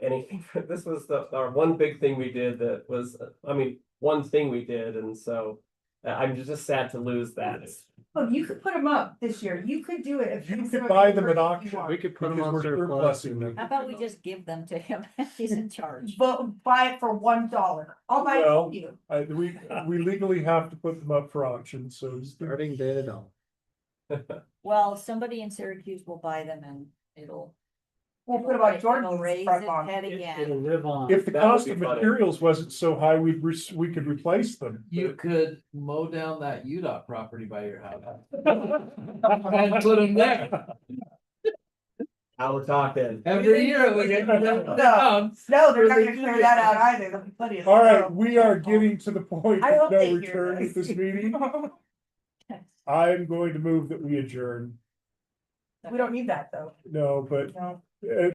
anything. This was the, our one big thing we did that was, I mean, one thing we did, and so. uh, I'm just sad to lose that. Oh, you could put them up this year. You could do it. if You that's what could buy you them were- at you auction. are. We could put them Because on we're surplus. surplusing them. How about we just give them to him? He's in charge. But buy it for one dollar. I'll buy it Well, for you. I, we, we legally have to put them up for auction, so. it's- Starting day at all. Well, somebody in Syracuse will buy them and it'll. We'll put it'll- about it'll Jordan's Raise front its lawn. head again. live on. If the That would cost be of funny. materials wasn't so high, we'd, re- we could replace them. You could mow down that UDOT property by your house. And put them there. Now we're talking. Every year we get. No. No, they're not gonna clear that out either. There'll be plenty of. All right, we are getting to the point Oh. I of hope no they hear return at this meeting. I'm going to move that we adjourn. We don't need that though. No, but No. uh,